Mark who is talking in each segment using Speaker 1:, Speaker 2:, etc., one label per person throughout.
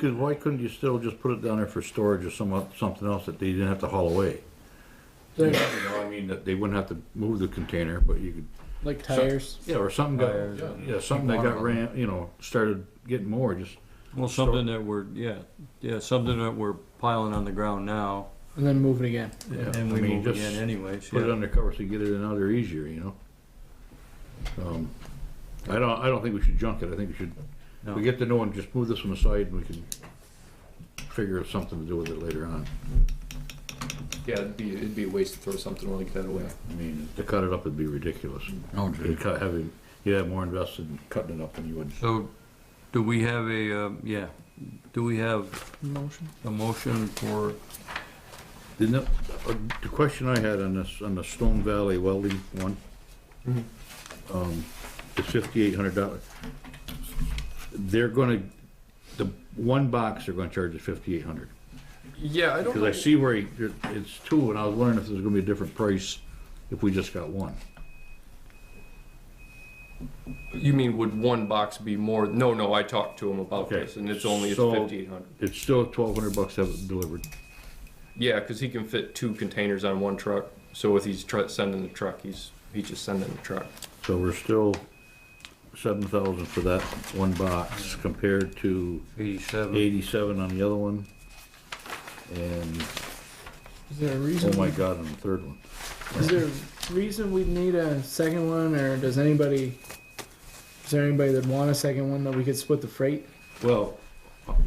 Speaker 1: Cause why couldn't you still just put it down there for storage or some, something else that they didn't have to haul away? You
Speaker 2: They're
Speaker 1: know, I mean, that they wouldn't have to move the container, but you could,
Speaker 2: like tires.
Speaker 1: yeah, or something
Speaker 3: Tires,
Speaker 1: got, yeah, something that got ran, you know, started getting more, just,
Speaker 3: Well, something that we're, yeah, yeah, something that we're piling on the ground now,
Speaker 2: And then move it again.
Speaker 1: yeah.
Speaker 3: and
Speaker 1: I
Speaker 3: we
Speaker 1: mean,
Speaker 3: move
Speaker 1: just
Speaker 3: again anyways,
Speaker 1: Put it
Speaker 3: yeah.
Speaker 1: under cover so you get it in there easier, you know? Um, I don't, I don't think we should junk it, I think we should,
Speaker 3: No.
Speaker 1: we get to know and just move this one aside and we can figure out something to do with it later on.
Speaker 4: Yeah, it'd be, it'd be a waste to throw something like that away.
Speaker 1: I mean, to cut it up would be ridiculous.
Speaker 5: Oh, gee.
Speaker 1: You'd cut, have, him- you'd have more invested in cutting it up than you would.
Speaker 3: So, do we have a, um, yeah, do we have
Speaker 2: Motion.
Speaker 3: a motion for,
Speaker 1: The, no- uh, the question I had on this, on the Stone Valley welding one, um, the fifty-eight hundred dollars. They're gonna, the one box, they're gonna charge us fifty-eight hundred.
Speaker 4: Yeah, I don't.
Speaker 1: Cause I see where he, there- it's two, and I was wondering if there's gonna be a different price if we just got one.
Speaker 4: You mean would one box be more? No, no. I talked to him about
Speaker 1: Okay,
Speaker 4: this, and it's only
Speaker 1: so-
Speaker 4: it's fifty eight hundred.
Speaker 1: It's still twelve hundred bucks to have it delivered.
Speaker 4: Yeah, because he can fit two containers on one truck. So if he's tr- sending the truck, he's he's just sending the truck.
Speaker 1: So we're still seven thousand for that one box compared to
Speaker 3: eighty-seven?
Speaker 1: eighty-seven on the other one. And,
Speaker 2: Is there a
Speaker 1: oh
Speaker 2: reason?
Speaker 1: my god, on the third one.
Speaker 2: Is there a reason we need a second one, or does anybody? Is there anybody that want a second one that we could split the freight?
Speaker 1: Well,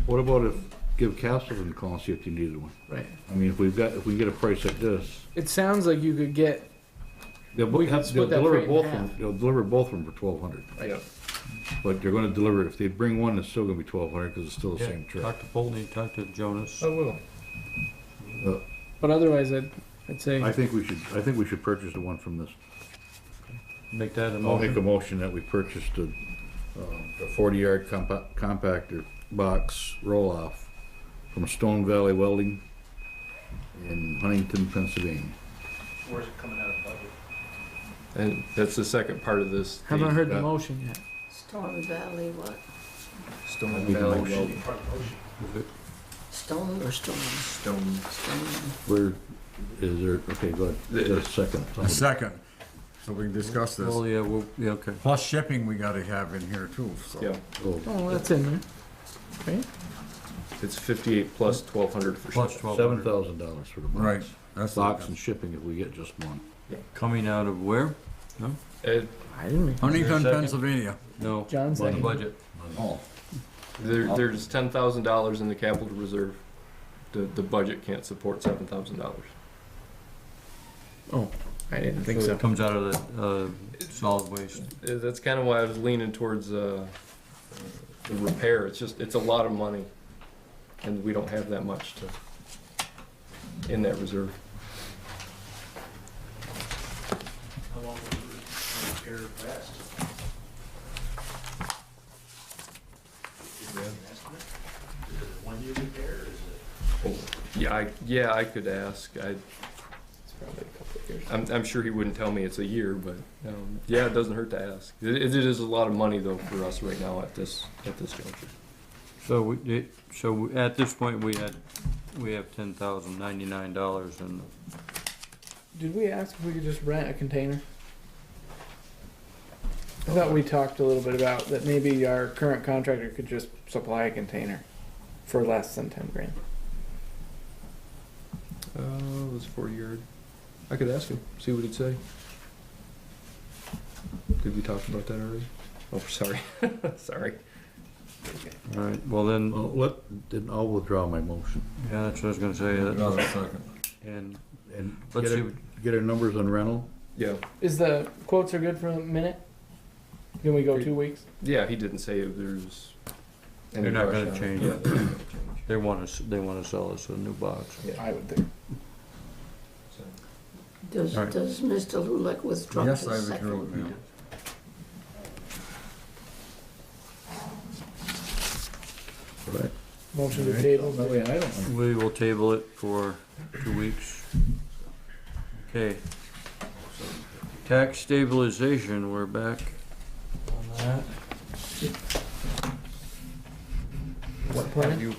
Speaker 1: what about if, give Castleton a call and see if they needed one?
Speaker 2: Right.
Speaker 1: I mean, if we've got, if we get a price like this,
Speaker 2: It sounds like you could get.
Speaker 1: they'll,
Speaker 2: We could
Speaker 1: they'll
Speaker 2: split that
Speaker 1: deliver
Speaker 2: freight in
Speaker 1: both of them,
Speaker 2: half.
Speaker 1: they'll deliver both of them for twelve hundred.
Speaker 2: Right.
Speaker 4: Yeah.
Speaker 1: But they're gonna deliver, if they bring one, it's still gonna be twelve hundred, cause it's still the
Speaker 3: Yeah,
Speaker 1: same truck.
Speaker 3: Talk to Polney, talk to
Speaker 5: Oh.
Speaker 3: Jonas.
Speaker 4: will.
Speaker 2: But otherwise, I'd, I'd say
Speaker 1: Uh, I think we should, I think we should purchase the one from this.
Speaker 3: Make that a
Speaker 1: I'll make a
Speaker 3: motion.
Speaker 1: motion that we purchased a, um, a forty-yard compa- compactor box roll-off from Stone Valley Welding in Huntington, Pennsylvania.
Speaker 6: Where's it coming out of budget?
Speaker 4: And that's the second part of this.
Speaker 2: haven't heard the
Speaker 1: uh,
Speaker 2: motion yet.
Speaker 7: Storm Valley, what?
Speaker 4: Stone
Speaker 1: Make a
Speaker 4: Valley
Speaker 1: motion.
Speaker 4: Welding.
Speaker 6: Part of the ocean.
Speaker 7: Stone or storm?
Speaker 4: Stone.
Speaker 7: Stone.
Speaker 1: Where, is there, okay, go ahead, Is there a second.
Speaker 5: A second, so we can discuss
Speaker 3: Oh,
Speaker 5: this.
Speaker 3: yeah, well, yeah, okay.
Speaker 5: Plus shipping we gotta have in here too,
Speaker 4: Yeah,
Speaker 5: so.
Speaker 1: Oh,
Speaker 2: Oh, that's in there. Right.
Speaker 4: it's fifty eight plus twelve hundred for
Speaker 3: Plus
Speaker 4: sure.
Speaker 3: twelve
Speaker 1: Seven
Speaker 3: hundred,
Speaker 1: thousand dollars for the box.
Speaker 5: Right, that's.
Speaker 1: Box and shipping if we get just one.
Speaker 3: coming out of where?
Speaker 4: Ed,
Speaker 2: I didn't. Make
Speaker 5: Huntington,
Speaker 3: Second.
Speaker 5: Pennsylvania.
Speaker 3: No,
Speaker 2: John
Speaker 3: the
Speaker 2: second.
Speaker 3: budget.
Speaker 5: Oh.
Speaker 4: there, there's ten thousand dollars in the capital reserve. The the budget can't support seven thousand dollars.
Speaker 2: I didn't think
Speaker 3: So
Speaker 2: so.
Speaker 3: it comes out of the, uh, solid waste.
Speaker 4: Uh, That's kind of why I was leaning towards uh, the repair. It's just, it's a lot of money, and we don't have that much to, in that reserve.
Speaker 6: How long would the repair last? Is there an estimate? Is it a one-year repair, or is it?
Speaker 4: Yeah, I, yeah, I could ask. I, it's probably a couple of years. I'm, I'm sure he wouldn't tell me it's a year, but um, yeah, it doesn't hurt to ask. It, it is a lot of money though for us right now at this, at this juncture.
Speaker 3: So we, it- so at this point, we had, we have ten thousand ninety-nine dollars and
Speaker 2: Did we ask if we could just rent a container? I thought we talked a little bit about that maybe our current contractor could just supply a container for less than ten grand.
Speaker 4: Uh, it was for a year. I could ask him, see what he'd say. Did we talk about that already? Oh, sorry, sorry.
Speaker 3: All right, well then,
Speaker 1: Well, let, then I'll withdraw my motion
Speaker 3: yeah, that's what I was gonna say, that-
Speaker 5: Another second.
Speaker 3: and
Speaker 1: and get
Speaker 3: let's see,
Speaker 1: our, get our numbers on rental.
Speaker 4: Yeah,
Speaker 2: Is the quotes are good for a minute? Can we go two weeks?
Speaker 4: yeah, he didn't say if there's. any
Speaker 3: They're not
Speaker 4: rush
Speaker 3: gonna
Speaker 4: on it.
Speaker 3: change
Speaker 4: Yeah,
Speaker 3: it.
Speaker 4: they're not gonna change
Speaker 3: they wanna, s- they wanna sell us a new box.
Speaker 2: I would think.
Speaker 4: it, so.
Speaker 7: Does,
Speaker 3: All right.
Speaker 7: does Mr. Lulek withdraw his
Speaker 5: Yes, I
Speaker 7: second?
Speaker 5: withdrew it, ma'am.
Speaker 1: Right.
Speaker 2: Motion to table.
Speaker 1: That way I don't.
Speaker 3: We will table it for two weeks. Okay. Tax stabilization, we're back on that.
Speaker 7: What, pardon?
Speaker 4: you